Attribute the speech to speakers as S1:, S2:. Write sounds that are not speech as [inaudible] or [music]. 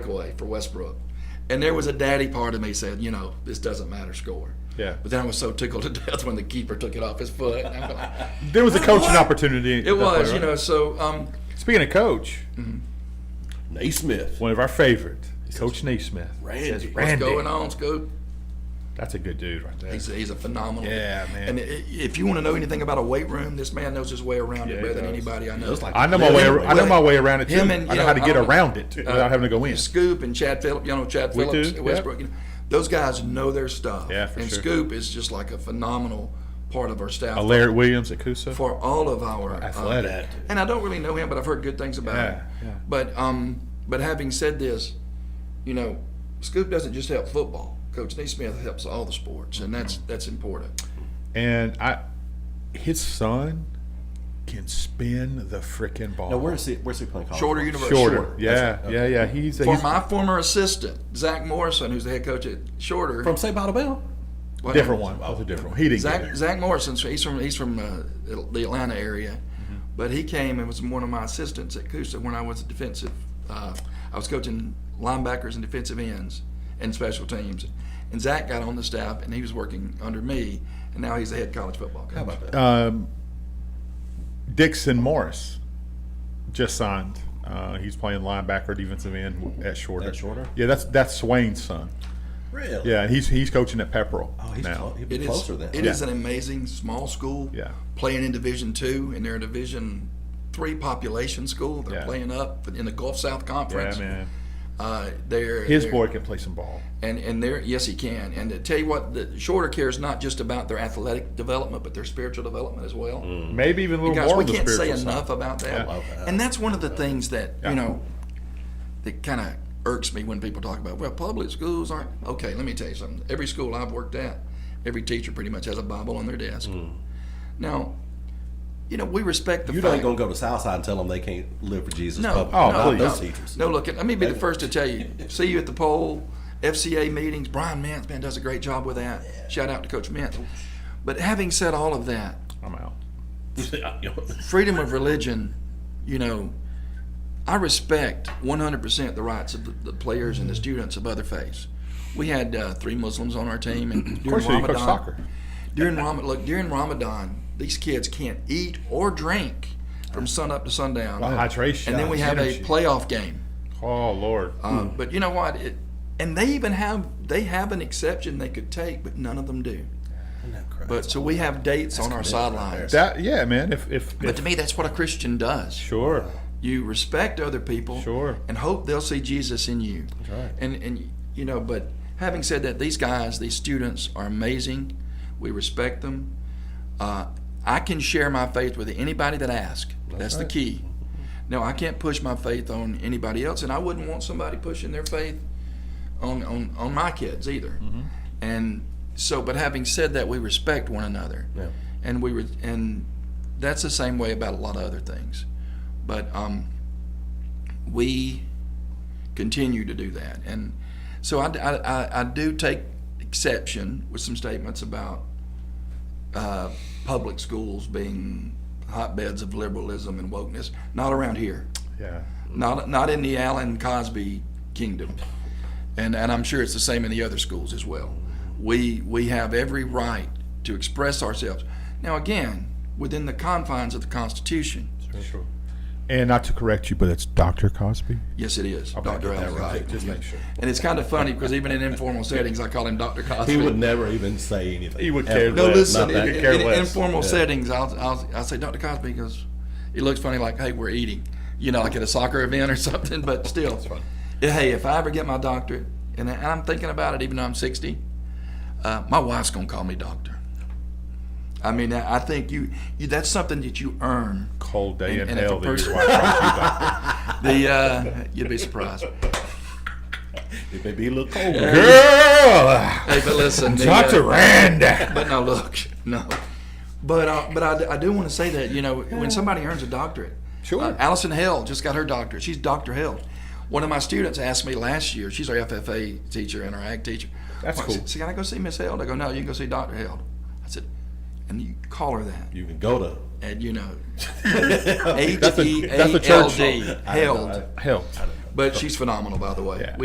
S1: halfway for Westbrook. And there was a daddy part of me said, you know, this doesn't matter score.
S2: Yeah.
S1: But then I was so tickled [laughs] to death when the keeper took it off his foot. And I'm
S2: [laughs]
S1: like,
S2: There was a coaching opportunity. at
S1: it
S2: that point,
S1: was, you
S2: right?
S1: know. Mm-hmm. So um,
S2: Speaking of coach,
S3: Naismith.
S2: one of our favorite, Coach Naismith.
S3: Randy.
S2: Says,
S1: what's
S3: What's
S2: Randy.
S1: going on, Scoop?
S2: That's a good dude right there.
S1: He's a, he's a phenomenal.
S2: Yeah, man.
S1: And i- if you want to know anything about a weight room, this man knows his way around
S2: Yeah,
S1: it
S2: he
S1: better than
S2: does.
S1: anybody I know. Uh,
S3: looks like
S2: I know my way. ar- I know my way around it too.
S1: Him and,
S2: I
S1: you
S2: know
S1: know,
S2: how to get
S1: um,
S2: around it without having to go in.
S1: Scoop and Chad Phillips, you know Chad
S2: We
S1: Phillips at
S2: do, yeah.
S1: Westbrook. You know, those guys know their stuff.
S2: Yeah, for
S1: and
S2: sure.
S1: Scoop is just like a phenomenal part of our staff
S2: Uh, Larry Williams at Coosa.
S1: for all of our uh,
S2: Athletic.
S1: and I don't really know him, but I've heard good things about
S2: Yeah,
S1: him.
S2: yeah.
S1: But um, but having said this, you know, Scoop doesn't just help football. Coach Neesmith helps all the sports, and that's that's important.
S2: and I, his son can spin the freaking ball.
S3: Now, where's he? Where's he playing college?
S1: Shorter
S3: from?
S1: University.
S2: shorter?
S3: Shorter, that's
S2: Yeah,
S3: right, okay.
S2: yeah, yeah. He's, a,
S1: For
S2: he's
S1: my former assistant, Zach Morrison, who's the head coach at Shorter,
S3: from St. Bottle Bell.
S1: what-
S2: different one. That was a different one. He didn't get
S1: Zach
S2: there.
S1: Zach Morrison, so he's from he's from uh, the Atlanta area,
S2: Mm-hmm.
S1: but he came and was one of my assistants at Coosa when I was a defensive. Uh, I was coaching linebackers and defensive ends and special teams, and Zach got on the staff and he was working under me, and now he's the head college football coach.
S3: How about that?
S2: um, Dixon Morris just signed. Uh, he's playing linebacker, defensive end at Shorter.
S3: At Shorter?
S2: Yeah, that's that's Swain's son.
S3: really?
S2: Yeah, he's he's coaching at Pepperell.
S3: Oh, he's
S2: now.
S3: clo- he'd be
S1: It is
S3: closer than.
S1: it
S2: Yeah.
S1: is an amazing small school.
S2: Yeah.
S1: playing in Division two, and they're a Division three population school. They're
S2: Yeah.
S1: playing up in the Gulf South
S2: yeah,
S1: Conference.
S2: man.
S1: Uh, they're
S2: His
S1: they're-
S2: boy can play some ball.
S1: And and there, yes, he can. And to tell you what, the shorter care is not just about their athletic development, but their spiritual development as well.
S2: Maybe even a little
S1: Mm. Guys,
S2: more
S1: we
S2: of the
S1: can't say
S2: spiritual side.
S1: enough about that.
S3: I Mm. love that.
S1: And that's one of the things that
S2: Yeah.
S1: you know that kind of irks me when people talk about well, public schools aren't okay. Let me tell you something. Every school I've worked at, every teacher pretty much has a Bible on their desk.
S3: Mm.
S1: Now, you know, we respect the
S3: You
S1: fact.
S3: ain't gonna go to Southside and tell them they can't live for Jesus.
S1: No,
S3: publicly.
S1: no,
S2: Oh,
S3: Not
S2: please.
S3: those teachers.
S1: No, look, let me be the first to tell
S2: [laughs]
S1: you. See you at the poll, FCA meetings. Brian Mintz, man, does a great job with that. Shout out to Coach Mintz. But having said all of that,
S2: I'm out.
S1: freedom of religion, you know, I respect 100% the rights of the, the players and the students of other faiths. We had uh, three Muslims on our team, and
S2: Of
S1: during
S2: course, you coach
S1: Ramadan,
S2: soccer.
S1: during Ramadan, look, during Ramadan, these kids can't eat or drink from sunup to sundown.
S2: Hydration.
S1: And then we have a
S2: energy.
S1: playoff game.
S2: Oh Lord.
S1: Uh, But you know what? It, and they even have they have an exception they could take, but none of them do. But so we have dates on our
S3: commitment right
S1: sidelines.
S2: that yeah, man. If if,
S1: but
S2: if
S1: to me, that's what a Christian does.
S2: sure.
S1: You respect other people,
S2: Sure.
S1: and hope they'll see Jesus in you. That's
S3: right.
S1: And and you know, but having said that, these guys, these students, are amazing. We respect them. Uh, I can share my faith with anybody that asks. That's, the key. No, I can't push my faith on anybody else, and I wouldn't want somebody pushing their faith on on, on my kids either. And so, but having said that, we respect one another,
S3: Yeah.
S1: and we re- and that's the same way about a lot of other things. But um, we continue to do that, and so I, I, I- I do take exception with some statements about uh, public schools being hotbeds of liberalism and wokeness. Not around here
S2: Yeah.
S1: not not in the Allen Cosby kingdom, and and I'm sure it's the same in the other schools as well. We we have every right to express ourselves. Now again, within the confines of the Constitution.
S2: Sure. And not to correct you, but it's Dr. Cosby.
S1: Yes, it is,
S2: Got
S1: Dr.
S2: that
S1: Allen Cosby.
S2: Just make sure.
S1: And it's kind of funny because even in informal settings, I call him Dr. Cosby.
S3: He would never even say anything.
S2: He would
S3: Ever.
S2: care
S1: no,
S2: less,
S1: listen.
S3: Not
S1: In,
S3: that-
S2: could
S1: in-
S2: care
S1: in
S2: less.
S1: informal
S3: Yeah.
S1: settings, I'll, I'll I'll say Dr. Cosby because it looks funny, like hey, we're eating, you know, like at a soccer event or [laughs] something. But still, Yeah, hey, if I ever get my doctorate, and, I- and I'm thinking about it, even though I'm 60, uh, my wife's gonna call me doctor. I mean, I I think you, you that's something that you earn.
S2: [laughs] Cold day
S1: And-
S2: in
S1: and if
S2: hell
S1: a
S2: that
S1: person-
S2: your wife brought you
S1: [laughs]
S2: back.
S1: The uh, you'd be
S2: [laughs]
S1: surprised.
S3: It may be a little cold.
S2: Girl!
S1: Hey, but listen, the, uh,
S2: Dr. Rand!
S1: But no, look, no. But uh, but I, d- I do want to say that you know when somebody earns a doctorate,
S2: Sure.
S1: uh, Allison Held just got her doctorate. She's Doctor Held. One of my students asked me last year. She's our FFA teacher and our ag teacher.
S2: That's
S1: Well, I said,
S2: cool.
S1: "So can I go see Miss Held? I go, no, you can go see Doctor Held. I said, and you call her that,
S3: You can go to.
S1: and you
S2: [laughs]
S1: know,
S3: That's
S1: H
S2: a-
S1: E
S2: that's a
S1: A L D
S2: church-
S1: Held.
S2: Hell.
S1: But she's phenomenal, by the way.
S2: Yeah.